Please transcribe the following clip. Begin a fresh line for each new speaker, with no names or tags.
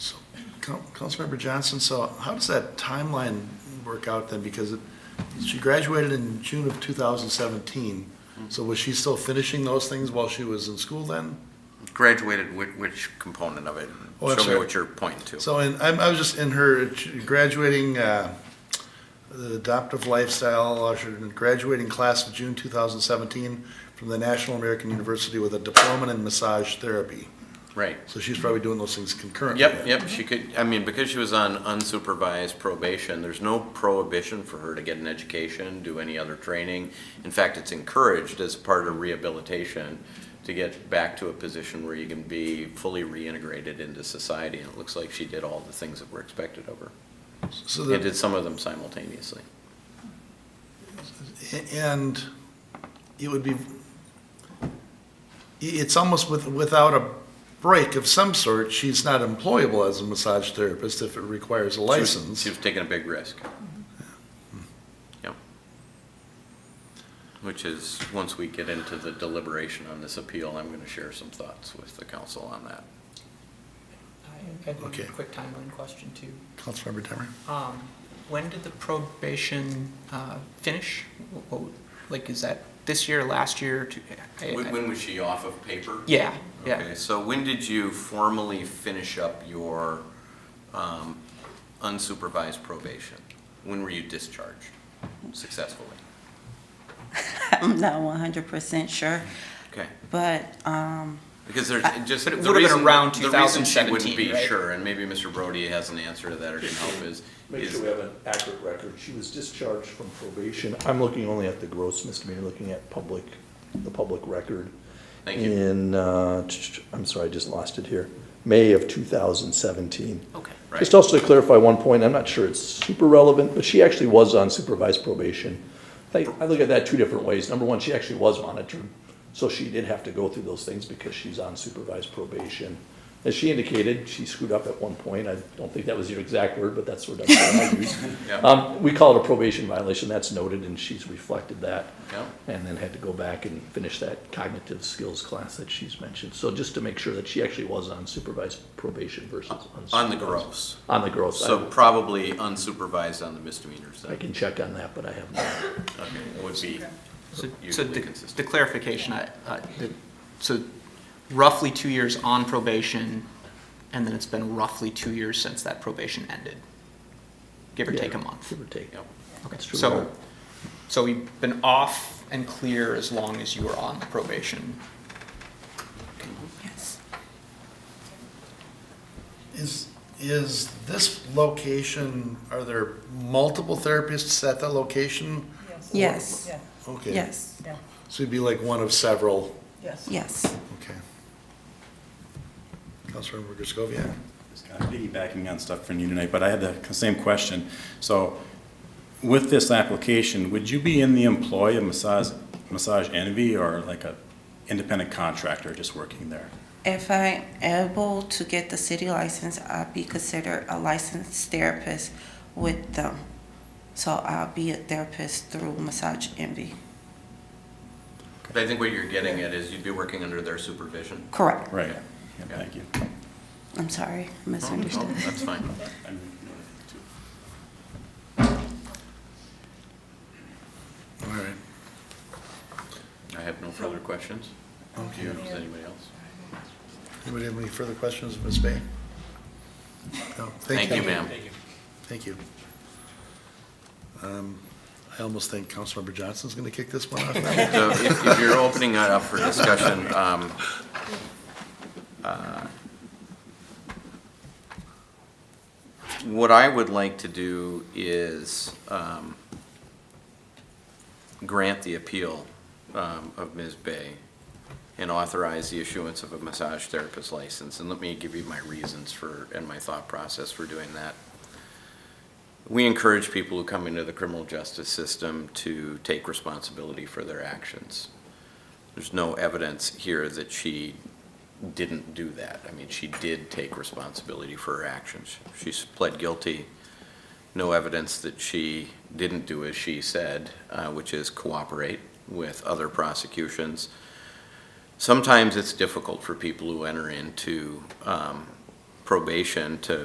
Coun- Councilmember Johnson, so how does that timeline work out then? Because it- she graduated in June of 2017,
Mm-hmm.
so was she still finishing those things while she was in school then?
Graduated, which, which component of it?
Oh, I'm
Show
sorry.
me what you're pointing to.
So, and I'm- I was just in her graduating, uh, the adoptive lifestyle, uh, she was in graduating class of June 2017 from the National American University with a diploma in massage therapy.
Right.
So she's probably doing those things concurrently.
Yep, yep, she could, I mean, because she was on unsupervised probation, there's no prohibition for her to get an education, do any other training. In fact, it's encouraged as part of rehabilitation to get back to a position where you can be fully reintegrated into society. And it looks like she did all the things that were expected of her.
So
And
that,
did some of them simultaneously.
and it would be, it's almost with, without a break of some sort, she's not employable as a massage therapist if it requires a
She was- She
license.
was taking a big risk. Yep. Which is, once we get into the deliberation on this appeal, I'm gonna share some thoughts with the council on that.
I had one
Okay.
quick timeline question too.
Councilmember Demmer?
Um, When did the probation uh, finish? Wh- wh- Like, is that this year, last year? two- I- I-
When, when was she off of paper?
Yeah, yeah.
Okay, so when did you formally finish up your um, unsupervised probation? When were you discharged successfully?
I'm not one hundred percent sure,
Okay.
but, um,
Because there's just,
Uh, But
the reason,
it would've been around
the reason she wouldn't
2017,
be
right?
sure, and maybe Mr. Brody has an answer to that or can help is,
Make
is
sure we have an accurate record. She was discharged from probation. I'm looking only at the gross misdemeanor, looking at public, the public record.
Thank you.
In, uh, tch, tch, I'm sorry, I just lost it here, May of 2017.
Okay.
Right.
Just also to clarify one point, I'm not sure it's super relevant, but she actually was on supervised probation. I, I look at that two different ways. Number one, she actually was monitored, so she did have to go through those things because she's on supervised probation. As she indicated, she screwed up at one point. I don't think that was your exact word, but that's sort of what I use.
Yeah.
Um, we call it a probation violation. That's noted, and she's reflected that.
Yeah.
And then had to go back and finish that cognitive skills class that she's mentioned. So just to make sure that she actually was on supervised probation versus unsupervised.
on the gross.
On the growth
So
side.
probably unsupervised on the misdemeanors
I
then,
can check on that, but I have not.
okay, would be
So so
usually
the the
consistent.
clarification, I- I- the- so roughly two years on probation, and then it's been roughly two years since that probation ended, give or take a month.
Give or take.
Yep.
That's true.
So, so we've been off and clear as long as you were on the probation.
yes.
Is, is this location, are there multiple therapists at that location?
Yes,
Yeah,
Okay.
yes,
yeah,
So it'd be like one of several,
yes.
yes.
okay. Councilmember Griscoviac?
Just kind of piggybacking on stuff from you tonight, but I had the same question. So with this application, would you be in the employ of Massage, Massage Envy or like a independent contractor just working there?
If I'm able to get the city license, I'll be considered a licensed therapist with them. So I'll be a therapist through Massage Envy.
But I think what you're getting at is you'd be working under their supervision.
Correct.
Right, yeah, thank you.
I'm sorry,
Oh,
misunderstood.
That's fine.
I'm-
All right.
I have no further questions. Do you, does anybody else?
Anybody have any further questions, Ms. Bay? No,
Thank you, ma'am.
Thank you. Um, I almost think Councilmember Johnson's going to kick this one off now.
So if, if you're opening that up for discussion, um, uh, what I would like to do is, um, grant the appeal, um, of Ms. Bay and authorize the issuance of a massage therapist license. And let me give you my reasons for, and my thought process for doing that. We encourage people who come into the criminal justice system to take responsibility for their actions. There's no evidence here that she didn't do that. I mean, she did take responsibility for her actions. She pled guilty. No evidence that she didn't do as she said, uh, which is cooperate with other prosecutions. Sometimes it's difficult for people who enter into um, probation to